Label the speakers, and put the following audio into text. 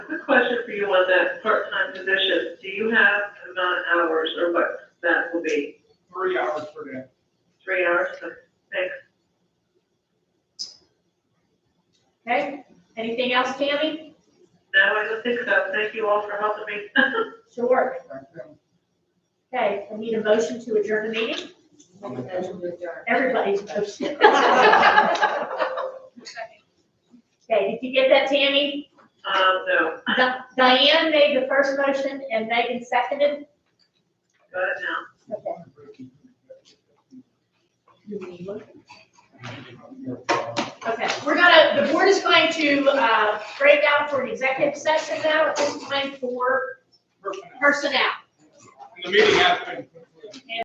Speaker 1: question for you on that part-time position, do you have amount of hours or what that will be?
Speaker 2: three hours per day.
Speaker 1: Three hours, so thanks.
Speaker 3: Okay, anything else, Tammy?
Speaker 1: No, I don't think so. Thank you all for helping me.
Speaker 3: Sure.
Speaker 2: Thank you.
Speaker 3: Okay, I need a motion to adjourn the meeting.
Speaker 4: Make a motion to adjourn.
Speaker 3: Everybody's motion.
Speaker 4: Second.
Speaker 3: Okay, did you get that, Tammy?
Speaker 1: Um, no,
Speaker 3: Di- Diane made the first motion and Megan seconded.
Speaker 1: got it now.
Speaker 3: Okay. Okay, we're gonna, the board is going to uh, break out for an executive session now at this time for
Speaker 2: Personnel.
Speaker 3: personnel.
Speaker 2: And The meeting has been. concluded.